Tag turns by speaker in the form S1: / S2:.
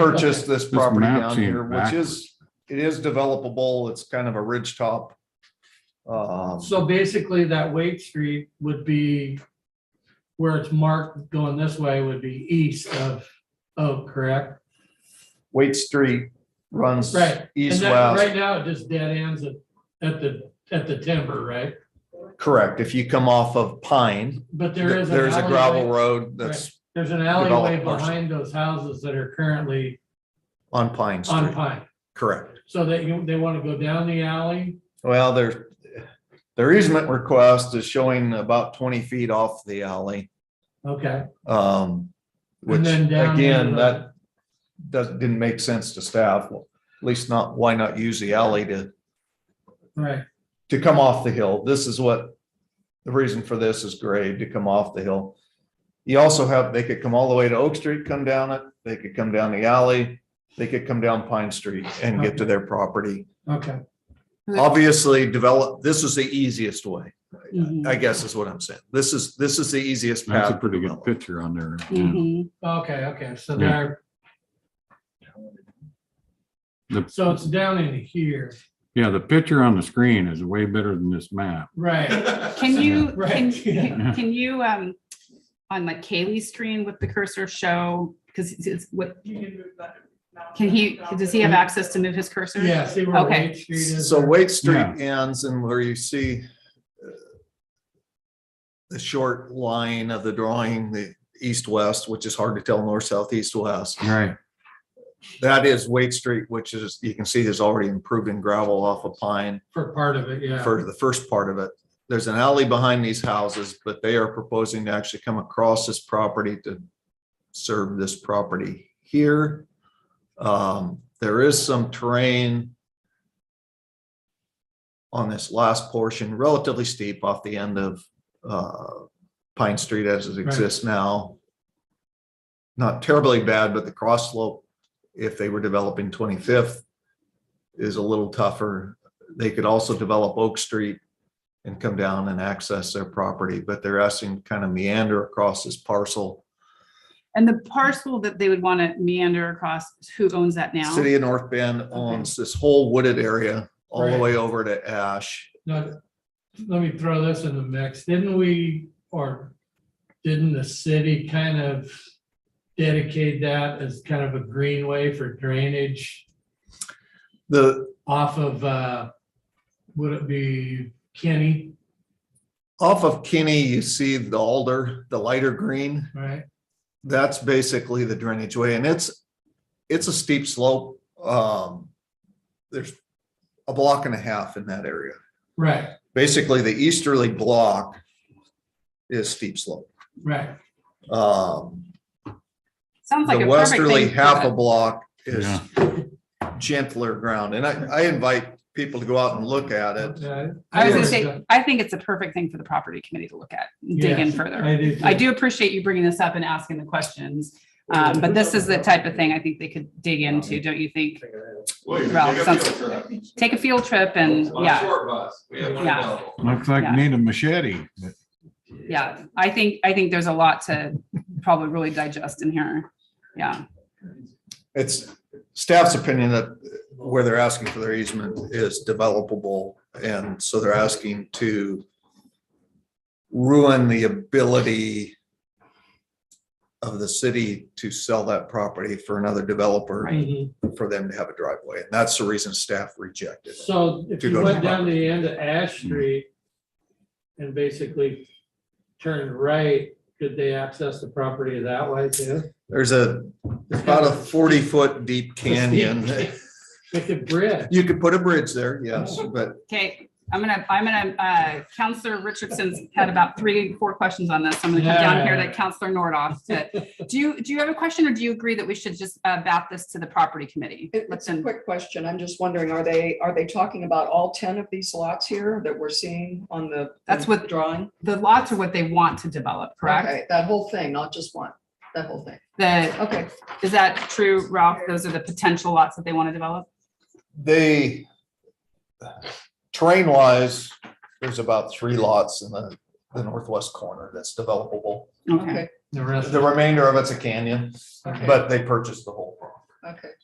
S1: purchased this property
S2: map
S1: down
S2: seems
S1: here, which is, it is developable. It's kind of a ridge top. Um,
S3: So basically, that Wait Street would be where it's marked going this way would be east of Oak, correct?
S1: Waite Street runs
S3: Right. And
S1: east,
S3: that,
S1: west.
S3: right now, it just dead ends at, at the, at the timber, right?
S1: Correct. If you come off of Pine,
S3: But there
S1: th-
S3: is. an
S1: there's a gravel
S3: alleyway-
S1: road that's
S3: There's an
S1: developed
S3: alleyway
S1: parcel.
S3: behind those houses that are currently
S1: on Pine
S3: on
S1: Street.
S3: Pine.
S1: Correct.
S3: So that you, they want to go down the alley.
S1: Well, their, their easement request is showing about twenty feet off the alley.
S3: Okay.
S1: Um, which
S3: And then down uh,
S1: again,
S3: to the-
S1: that doesn't, didn't make sense to staff. Well, At least not, why not use the alley to
S3: Right.
S1: to come off the hill. This is what the reason for this is grade to come off the hill. You also have, they could come all the way to Oak Street, come down it, they could come down the alley, they could come down Pine Street and get to their property.
S3: Okay.
S1: Obviously, develop, this is the easiest way,
S3: Mm-hmm.
S1: I guess is what I'm saying. This is, this is the easiest
S2: That's a
S1: path.
S2: pretty good
S1: develop.
S2: picture on there.
S1: Mm-hmm.
S2: yeah.
S4: Mhm.
S3: mm-hmm. Okay, okay. So
S2: Yeah.
S3: there.
S2: The-
S3: So it's down in here,
S2: Yeah, the picture on the screen is way better than this map.
S3: right?
S4: Can you, can,
S3: Right, yeah.
S4: can can you, um, on like Kaylee's screen with the cursor show, because it's, it's what, can he, does he have access to move his cursor?
S3: Yeah, see where
S4: Okay.
S3: Wait Street is?
S1: So
S3: there?
S1: Wait Street ends and where you see uh, the short line of the drawing, the east-west, which is hard to tell north, south, east, west.
S2: Right.
S1: That is Wade Street, which is, you can see there's already improved in gravel off of Pine
S3: For part of it, yeah.
S1: for the first part of it. There's an alley behind these houses, but they are proposing to actually come across this property to serve this property here. Um, there is some terrain on this last portion, relatively steep off the end of, uh, Pine Street as it exists now. Not terribly bad, but the cross slope, if they were developing twenty-fifth, is a little tougher. They could also develop Oak Street and come down and access their property, but they're asking to kind of meander across this parcel.
S4: And the parcel that they would want to meander across, who owns that now?
S1: City of North Bend owns this whole wooded area all the
S3: Right.
S1: way over to Ash.
S3: Now, let me throw this in the mix. Didn't we, or didn't the city kind of dedicate that as kind of a greenway for drainage
S1: The,
S3: off of, uh, would it be Kenny,
S1: off of Kinney, you see the alder, the lighter green.
S3: right?
S1: That's basically the drainage way and it's, it's a steep slope. Um, there's a block and a half in that area.
S3: Right,
S1: Basically, the easterly block is steep slope.
S3: right.
S1: Um,
S4: Sounds like
S1: The
S4: a perfect
S1: westerly
S4: thing for
S1: half
S4: the-
S1: a block is gentler ground, and I, I invite people to go out and look at it.
S3: Okay.
S4: I was gonna
S1: Yeah.
S4: say, I think it's a perfect thing for the property committee to look at, and dig in
S3: Yes,
S4: further.
S3: I do.
S4: I
S3: too.
S4: do appreciate you bringing this up and asking the questions, um, but this is the type of thing I think they could dig into, don't you think?
S5: Well, you
S4: Well,
S5: can take a
S4: sounds-
S5: field trip.
S4: Take a field trip and,
S5: On a
S4: yeah.
S5: Short bus, we have one
S4: Yeah.
S5: available.
S2: Looks like
S4: Yeah.
S2: you need a machete.
S4: Yeah, I think, I think there's a lot to probably really digest in here. Yeah,
S1: It's staff's opinion that where they're asking for their easement is developable, and so they're asking to ruin the ability of the city to sell that property for another developer,
S3: Mhm.
S1: for them to have a driveway, and that's the reason staff rejected it.
S3: So if
S1: To
S3: you
S1: go
S3: went
S1: to- Mm-hmm.
S3: down to the end of Ash Street and basically turned right, could they access the property that way too?
S1: There's a, there's about a forty-foot deep canyon.
S3: Like a bridge.
S1: You could put a bridge there, yes, but
S4: okay, I'm gonna, I'm gonna, uh, Counselor Richardson's had about three, four questions on this. I'm gonna come down here to Counselor Nordoff. to- Do you, do you have a question or do you agree that we should just uh, bat this to the property committee?
S6: It-
S4: Let's
S6: It's a
S4: then-
S6: quick question. I'm just wondering, are they, are they talking about all ten of these lots here that we're seeing on the?
S4: That's what-
S6: Drawing?
S4: The lots are what they want to develop, correct?
S6: Okay, That whole thing, not just one, that whole thing.
S4: The,
S6: Okay,
S4: is that true, Ralph? Those are the potential lots that they want to develop?
S1: they, terrain wise, there's about three lots in the, the northwest corner that's developable.
S4: Okay,
S6: okay.
S3: The rest,
S1: The remainder of it's a canyon,
S3: okay.
S1: but they purchased the whole. property.
S6: okay.